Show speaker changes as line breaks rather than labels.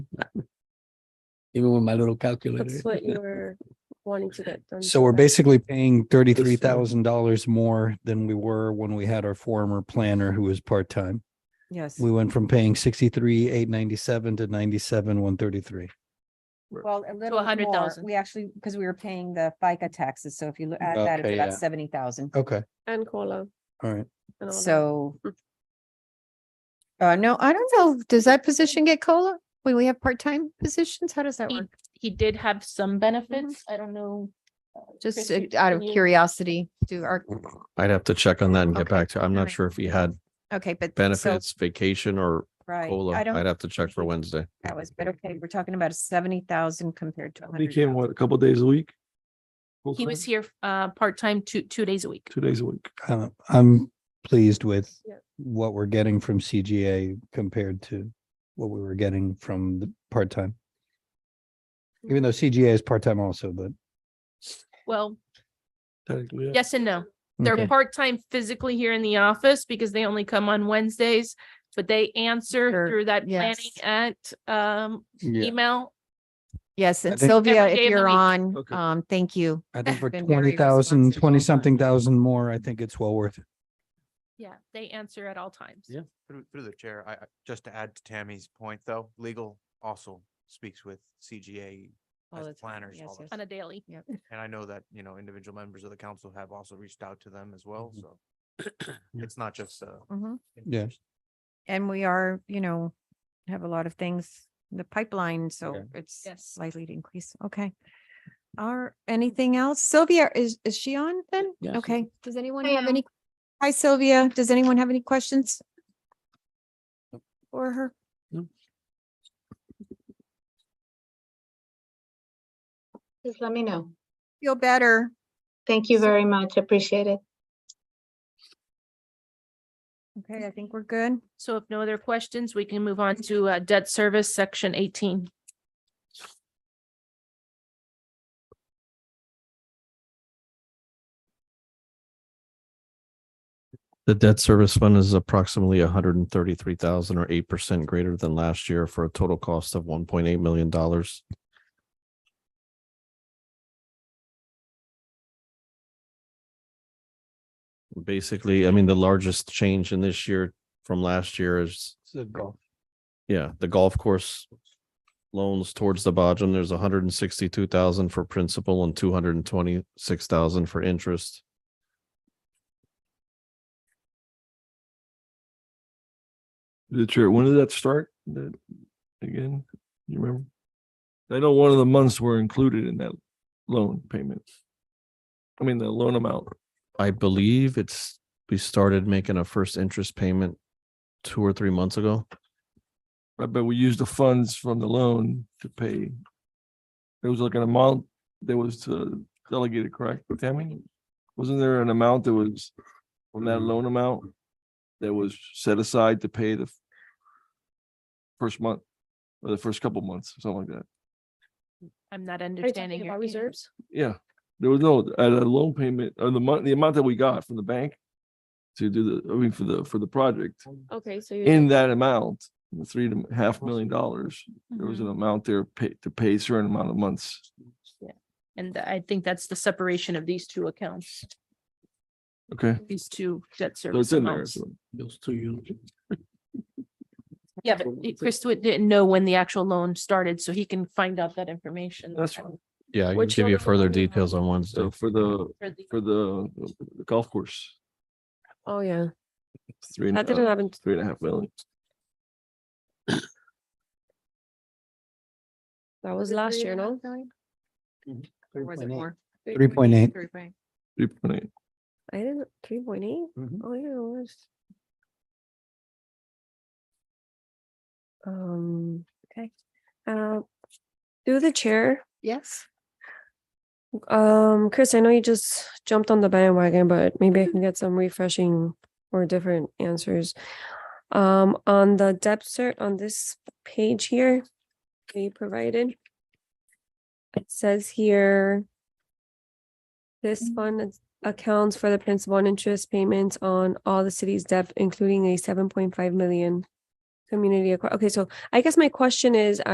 even with my little calculator.
That's what you were wanting to get done.
So we're
today.
basically paying thirty-three thousand dollars more than we were when we had our former planner who was part-time.
Yes.
We went from paying sixty-three, eight ninety-seven to ninety-seven, one thirty-three.
Well, a little
hundred
more.
thousand.
We actually, because we were paying the FICA taxes. So if you look at that,
Okay,
it's
yeah.
about seventy thousand.
Okay,
And Cola.
all right.
Oh,
and all that.
So
Hmm.
Uh, no, I don't know. Does that position get COLA? When we have part-time positions, how does that
He,
work?
he did have
Mm-hmm.
some benefits. I don't know. uh,
Just uh,
Christy,
out of
can you-
curiosity, do our,
I'd have to check on that and get
Okay,
back to, I'm not
alright.
sure if he had
okay, but. so-
benefits, vacation or
Right,
COLA.
I
I'd
don't, Mhm.
have to check for Wednesday.
that was, but okay, we're talking about seventy thousand compared to a
He
hundred.
came, what, a couple days a week?
He
Full-time?
was here uh part-time two, two days a week.
Two days a week.
Uh, I'm pleased with
Yeah.
what we're getting from CGA compared to what we were getting from the part-time. Even though CGA is part-time also, but.
Well,
Technically, yeah.
yes and no. They're
Okay.
part-time physically here in the office because they only come on Wednesdays, but they answer
Sure,
through that planning
yes.
at um
Yeah.
email.
Yes, and
think-
Sylvia,
Every day
if
of the
you're
week.
on,
Okay.
um, thank you.
I think for
been very
twenty thousand,
responsive
twenty
all the
something
time.
thousand more, I think it's well worth it.
Yeah, they answer at all times.
Yeah.
Through, through the chair, I, I- just to add to Tammy's point though, legal also speaks with CGA
all the
as
time.
planners.
Oh, Yes,
all the
yes.
On a daily.
And I know that, you know, individual members of the council have also reached out to them as well,
Mhm.
so
Yeah.
it's not just, uh.
Mm-hmm.
Mhm.
Yeah.
And we are, you know, have a lot of things in the pipeline, so
Okay.
it's
Yes.
slightly to increase. Okay. Are anything else? Sylvia, is, is she on then?
Yes.
Okay. Does anyone
I
have
am.
any? Hi Sylvia, does anyone have any questions? For her?
Just let me know.
Feel better.
Thank you very much. Appreciate it.
Okay, I think we're good.
So if no other questions, we can move on to uh, debt service, section eighteen.
The debt service fund is approximately hundred and thirty-three thousand or eight percent greater than last year for a total cost of one point eight million dollars. Basically, I mean, the largest change in this year from last year is Yeah, the golf course loans towards the bottom, there's hundred and sixty-two thousand for principal and two hundred and twenty-six thousand for interest.
The chair, when did that start? That, again, you remember? I know one of the months were included in that loan payment. I mean, the loan amount.
I believe it's, we started making a first interest payment two or three months ago.
I bet we used the funds from the loan to pay. There was like an amount that was to delegate it, correct, Tammy? Wasn't there an amount that was from that loan amount that was set aside to pay the first month or the first couple months, something like that?
I'm not
Are you
understanding
talking
your
about reserves?
Yeah, there was no, uh, the loan payment or the month, the amount that we got from the bank to do the, I mean, for the, for the project,
Okay, so you.
in that amount, the three and a half million dollars, there
Mm-hmm.
was an amount there pay, to pay a certain amount of months.
And I think that's the separation of these two accounts,
Okay,
these two debt
so
service
it's in there.
amounts.
so-
Those two units.
Yeah, but it- Christwood didn't know when the actual loan started, so he can find out that information.
That's fine.
Yeah, I can
Which
give you
loan?
further details on Wednesday.
So for the,
For the-
for the the golf course,
Oh, yeah.
three, and
That didn't
a-
happen.
three and a half million.
That was last year, no?
Or was it more?
Three point eight.
Three point-
Three point eight.
I didn't, three point eight?
Mhm.
Oh, yeah, it was. Um, okay. Uh, through the chair,
Yes.
um, Chris, I know you just jumped on the bandwagon, but maybe I can get some refreshing or different answers. Um, on the depth cert on this page here, that you provided. It says here. This fund is- accounts for the principal and interest payments on all the city's debt, including a seven point five million. Community, acqui- okay, so I guess my question is,